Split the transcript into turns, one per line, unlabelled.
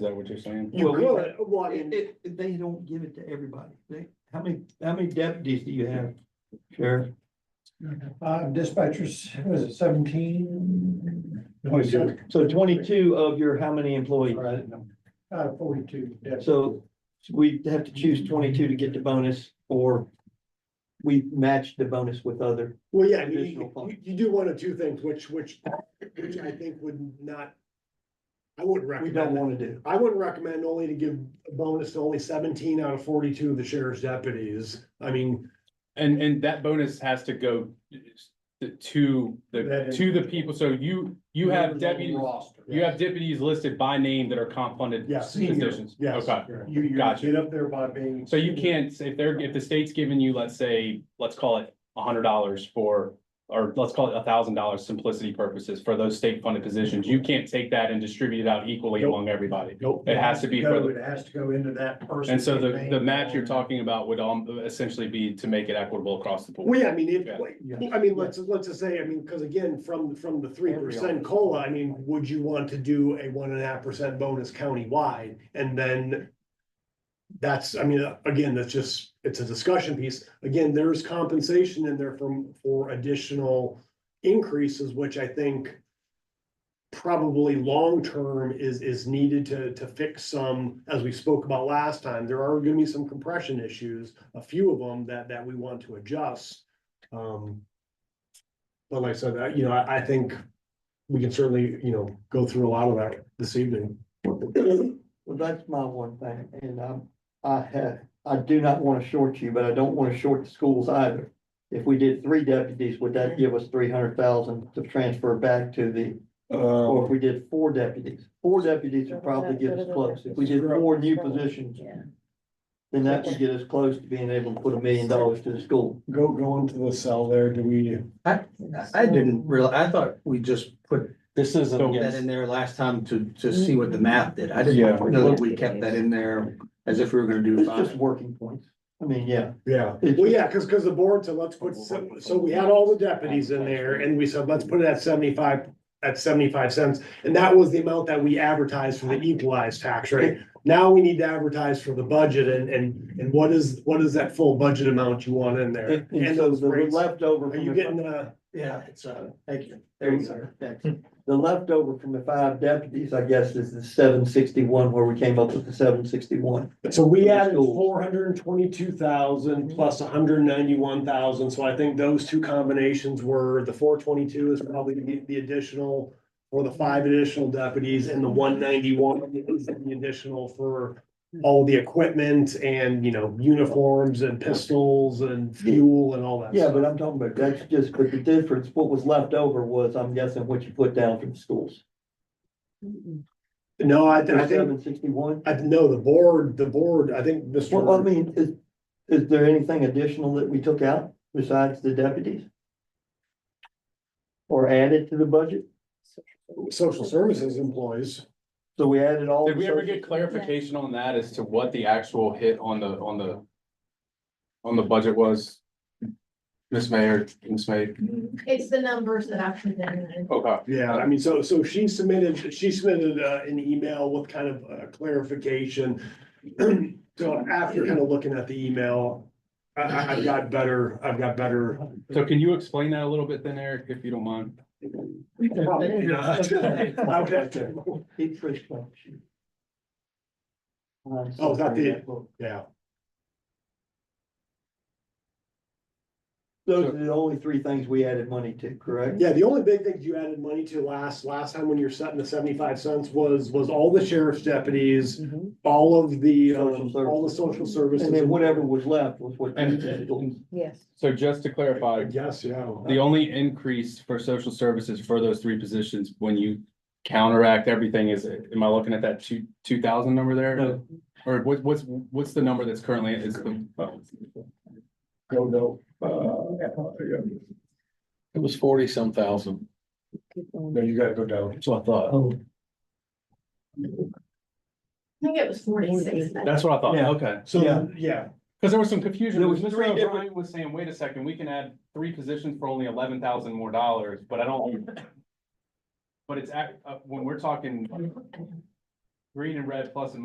that what you're saying?
You
Well, well,
read
uh, well, I
It,
mean,
it, they don't give it to everybody. They, how many, how many deputies do you have, Sheriff?
Uh, dispatchers, was it seventeen?
Twenty-two.
So twenty-two of your how many employees?
Right, Uh, forty-two, yes.
So we have to choose twenty-two to get the bonus or we match the bonus with other.
well, yeah, I mean,
Additional
you- you,
funds.
you do one of two things, which, which, which I think would not. I wouldn't
We don't
recommend, that.
want to do.
I wouldn't recommend only to give a bonus to only seventeen out of forty-two of the sheriff's deputies. I mean,
And, and that bonus has to go to- to the,
That is-
to the people, so you, you have deputies, you have deputies listed by name that are comp funded
Yeah,
senior,
positions.
yes.
Okay,
You, you
Gotcha.
get up there by being.
so you can't, say if they're, if the state's giving you, let's say, let's call it a hundred dollars for, or let's call it a thousand dollars simplicity purposes for those state funded positions, you can't take that and distribute it out equally
Nope.
among everybody.
nope,
It has to be for the-
Go, It has to go into that person.
And so the, the match you're talking about would um, essentially be to make it equitable across the
well,
board.
yeah, I mean, if,
Yeah.
like,
Yeah.
I mean, let's, let's just say, I mean, because again, from, from the three percent COLA, I mean, would you want to do a one and a half percent bonus countywide? And then that's, I mean, again, that's just, it's a discussion piece. Again, there's compensation in there from, for additional increases, which I think probably long-term is, is needed to, to fix some, as we spoke about last time, there are gonna be some compression issues, a few of them that, that we want to adjust. Um, but like I said, I- you know, I, I think we can certainly, you know, go through a lot of that this evening.
Well, that's my one thing, and I'm, I have, I do not want to short you, but I don't want to short the schools either. If we did three deputies, would that give us three hundred thousand to transfer back to the, or if we did four deputies? Four deputies would probably get us close. If we did four new positions,
Yeah.
then that would get us close to being able to put a million dollars to the school.
Go, go into the cell there, do we?
I didn't realize, I thought we just put
This isn't
that in
against,
there last time to, to see what the math did. I didn't know that we kept that in there as if we were gonna do
It's just
five.
working points. I mean, yeah.
Yeah,
It's-
well, yeah, cause, cause the board said, let's put, so, so we had all the deputies in there and we said, let's put it at seventy-five, at seventy-five cents. And that was the amount that we advertised for the equalized tax rate. Now we need to advertise for the budget and, and, and what is, what is that full budget amount you want in there?
And
And
and so
those
the
rates, are
leftover. from
you
the-
getting, uh,
Yeah, it's, uh,
Thank you.
There you go.
Thanks. The leftover from the five deputies, I guess, is the seven sixty-one where we came up with the seven sixty-one.
So we
For
added
schools.
four hundred and twenty-two
Mhm.
thousand plus hundred and ninety-one thousand, so I think those two combinations were, the four twenty-two is probably the, the additional. Or the five additional deputies and the one ninety-one is the additional for all the equipment and, you know, uniforms and pistols and fuel and all that.
Yeah,
stuff.
but I'm talking about, that's just, but the difference, what was left over was, I'm guessing, what you put down for the schools.
No, I, I think,
Seven sixty-one?
I, no, the board, the board, I think
Well, I
Mr.
mean, is, is there anything additional that we took out besides the deputies? Or added to the budget?
Social Services employees.
So we added all.
Did
the
we ever
social-
get clarification on that as to what the actual hit on the, on the, on the budget was? Miss Mayor, Ms. May,
It's the numbers that I presented.
okay.
Yeah, I mean, so, so she submitted, she submitted uh, an email with kind of uh, clarification. So after kind of looking at the email, I, I, I've got better, I've got better.
So can you explain that a little bit then, Eric, if you don't mind?
Probably not. I would have to-
Keep Chris Clarkson. Uh,
Oh, is that the-
so-
Yeah,
Those are the only three things we added money to, correct?
yeah, the only big thing you added money to last, last time when you were setting the seventy-five cents was, was all the sheriff's deputies, all of the, um,
Social
all the social services.
And then whatever was left was what.
And-
Yes.
So just to clarify,
Yes, yeah.
the only increase for social services for those three positions, when you counteract everything, is, am I looking at that two, two thousand number there?
No.
Or what, what's, what's the number that's currently, is the, oh,
Go, no.
it was forty some thousand.
No, you gotta go down.
That's what I thought.
Oh.
I think it was forty-six. then.
that's what I thought,
Yeah.
okay.
Yeah.
So, yeah,
Cause there was some confusion. There
There was
was
three
O'Brien was saying, wait a second, we can add three positions for only eleven thousand more dollars, but I don't. But it's, act- uh, when we're talking green and red plus and